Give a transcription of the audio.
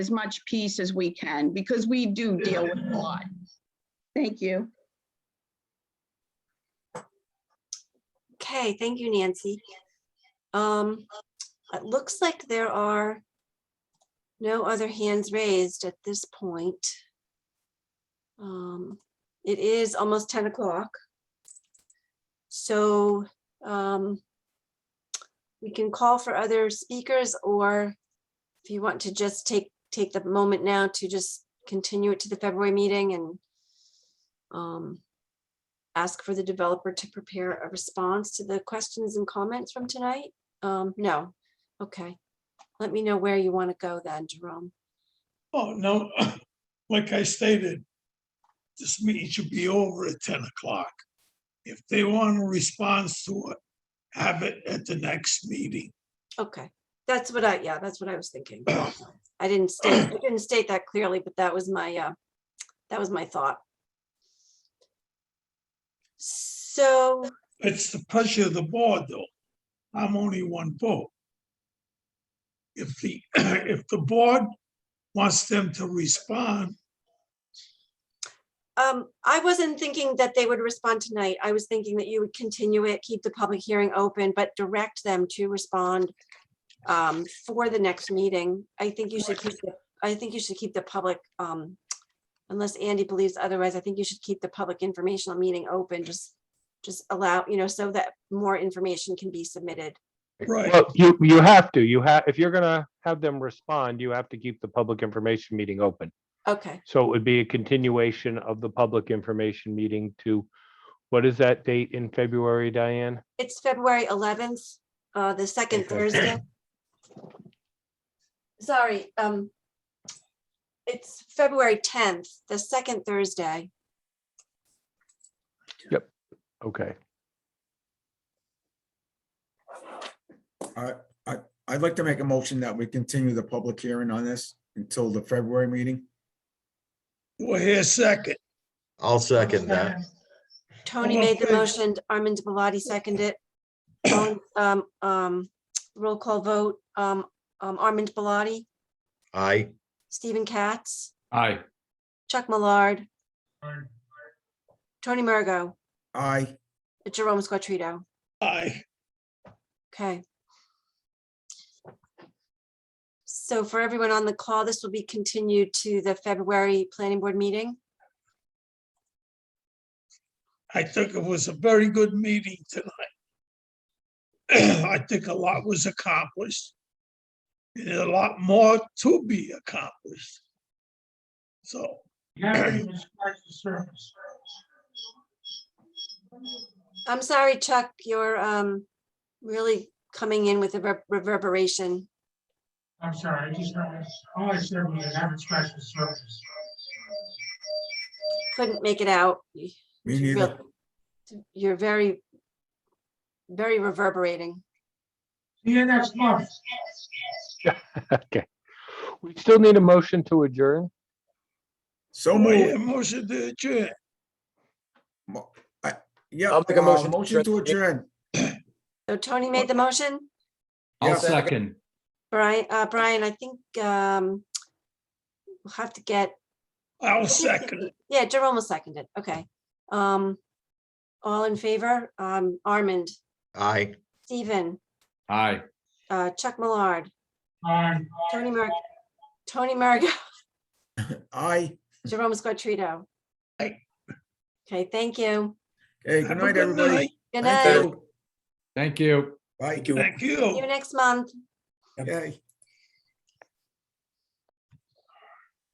as much peace as we can because we do deal with a lot. Thank you. Okay, thank you, Nancy. Um, it looks like there are no other hands raised at this point. Um, it is almost ten o'clock. So, um, we can call for other speakers or if you want to just take, take the moment now to just continue it to the February meeting and um, ask for the developer to prepare a response to the questions and comments from tonight? Um, no, okay. Let me know where you want to go then, Jerome. Oh, no, like I stated, this meeting should be over at ten o'clock. If they want a response to it, have it at the next meeting. Okay, that's what I, yeah, that's what I was thinking. I didn't state, I didn't state that clearly, but that was my, uh, that was my thought. So, It's the pressure of the board, though. I'm only one vote. If the, if the board wants them to respond, um, I wasn't thinking that they would respond tonight. I was thinking that you would continue it, keep the public hearing open, but direct them to respond um, for the next meeting. I think you should keep, the- I think you should keep the public, um, unless Andy believes otherwise, I think you should keep the public informational meeting open, just, just allow, you know, so that more information can be submitted. right, Well, you, you have to, you have, if you're gonna have them respond, you have to keep the public information meeting open. Okay, So it would be a continuation of the public information meeting to, what is that date in February, Diane? it's February eleventh, uh, the second Okay. Thursday. Sorry, um, it's February tenth, the second Thursday. Okay, I'd like to make a motion that we continue the public hearing on this until the February meeting. we're here second. I'll second that. Tony All in made the favor? motion, Armin Biladi seconded. it. All in- Um, um, roll call vote, um, um, Armin Biladi, Aye. Stephen Katz, Aye. Chuck Millard. Tony Mergo, Aye, Jerome Squatrito, Aye, okay. So for everyone on the call, this will be continued to the February planning board meeting. I think it was a very good meeting tonight. I think a lot was accomplished. And a lot more to be accomplished. So, I'm sorry, Chuck, you're, um, really coming in with a rever- reverberation. I'm sorry, I just, heard- all I said was an average special service. Couldn't make it out. me It's neither. real- it's- You're very, very reverberating. See you next month. okay. We still need a motion to adjourn? So my move. motion to adjourn. Yeah, I'll make a uh, motion to motion to adjourn. adjourn. So Tony made the motion. Yeah. I'll second. Brian, uh, Brian, I think, um, we'll have to get, I'll second it. yeah, Jerome will second it. Okay. Um, all in favor, um, Armand, Aye. Stephen, Aye. uh, Chuck Millard, Um, Tony Mer, Tony Mergo, Aye. Jerome Squatrito. Aye. Okay, thank you. Hey, Have good a night, good everybody. night. Good Thank night. you. Thank you. Bye. Thank See you you. next month. Yay.